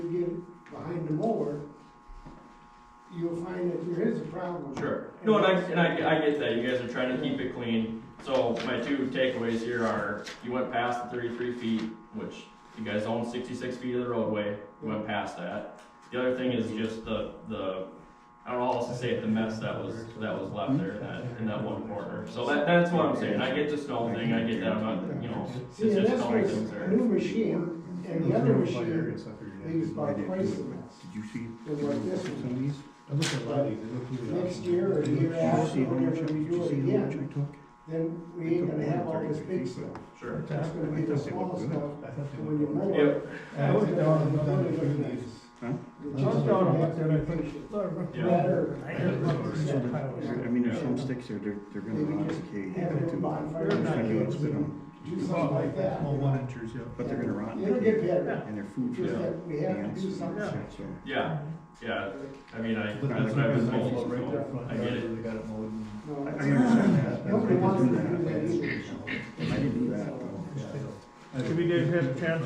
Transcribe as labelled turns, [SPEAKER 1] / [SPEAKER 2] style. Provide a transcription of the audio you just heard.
[SPEAKER 1] town.
[SPEAKER 2] Sure. No, and I, and I, I get that, you guys are trying to keep it clean, so my two takeaways here are, you went past the thirty-three feet, which you guys own sixty-six feet of the roadway, you went past that. The other thing is just the, the, I don't know, I'll say it, the mess that was, that was left there in that, in that one corner, so that, that's what I'm saying, I get the snow thing, I get that, I'm not, you know, it's
[SPEAKER 1] See, and
[SPEAKER 2] just
[SPEAKER 1] this
[SPEAKER 2] knowing things
[SPEAKER 1] was a new
[SPEAKER 2] there.
[SPEAKER 1] machine, and the other machine leaves by twice the mess.
[SPEAKER 3] Did you see
[SPEAKER 1] And what this
[SPEAKER 3] some
[SPEAKER 1] one,
[SPEAKER 3] of these?
[SPEAKER 4] I looked at a lot of these, I looked through the.
[SPEAKER 1] Next year or
[SPEAKER 3] Did you
[SPEAKER 1] year after,
[SPEAKER 3] see how much,
[SPEAKER 1] whenever
[SPEAKER 3] did
[SPEAKER 1] we do
[SPEAKER 3] you
[SPEAKER 1] it
[SPEAKER 3] see how much
[SPEAKER 1] again,
[SPEAKER 3] I took?
[SPEAKER 1] then we ain't gonna have all this big stuff.
[SPEAKER 2] Sure.
[SPEAKER 1] That's gonna be the small stuff,
[SPEAKER 4] I thought they
[SPEAKER 1] when you
[SPEAKER 4] looked
[SPEAKER 1] mow
[SPEAKER 2] Yep.
[SPEAKER 1] it.
[SPEAKER 4] I looked down and looked down and looked at these.
[SPEAKER 1] the
[SPEAKER 4] I looked
[SPEAKER 1] chances
[SPEAKER 4] down
[SPEAKER 1] of
[SPEAKER 4] and looked at it, I
[SPEAKER 1] that
[SPEAKER 4] think,
[SPEAKER 1] patient
[SPEAKER 4] look,
[SPEAKER 2] Yeah.
[SPEAKER 1] Better.
[SPEAKER 3] I mean, there's some sticks there, they're, they're gonna
[SPEAKER 1] Maybe
[SPEAKER 3] rot
[SPEAKER 1] just
[SPEAKER 3] decay.
[SPEAKER 1] Have a little bonfire,
[SPEAKER 3] I'm just trying to get spit on
[SPEAKER 1] do
[SPEAKER 3] 'em.
[SPEAKER 1] something like that.
[SPEAKER 4] Well, one inches, yeah.
[SPEAKER 3] but they're gonna rot and
[SPEAKER 1] It'll get
[SPEAKER 3] decay,
[SPEAKER 1] better,
[SPEAKER 3] and their food for
[SPEAKER 1] just
[SPEAKER 3] the
[SPEAKER 1] that we have to
[SPEAKER 3] ants
[SPEAKER 1] do
[SPEAKER 3] and stuff,
[SPEAKER 1] something.
[SPEAKER 3] so.
[SPEAKER 2] Yeah, yeah, I mean, I,
[SPEAKER 4] But
[SPEAKER 2] that's what I've been
[SPEAKER 4] that's
[SPEAKER 2] told,
[SPEAKER 4] right there,
[SPEAKER 2] so,
[SPEAKER 4] front
[SPEAKER 2] I get
[SPEAKER 4] yard,
[SPEAKER 2] it.
[SPEAKER 4] They got it mowed and-
[SPEAKER 1] No,
[SPEAKER 3] I, I
[SPEAKER 1] that's-
[SPEAKER 3] understand that, that's why I
[SPEAKER 1] Nobody wants to do
[SPEAKER 3] didn't do
[SPEAKER 1] that
[SPEAKER 3] that,
[SPEAKER 1] either.
[SPEAKER 3] I didn't do that, though.
[SPEAKER 4] yeah, so-
[SPEAKER 5] Have you guys had a chance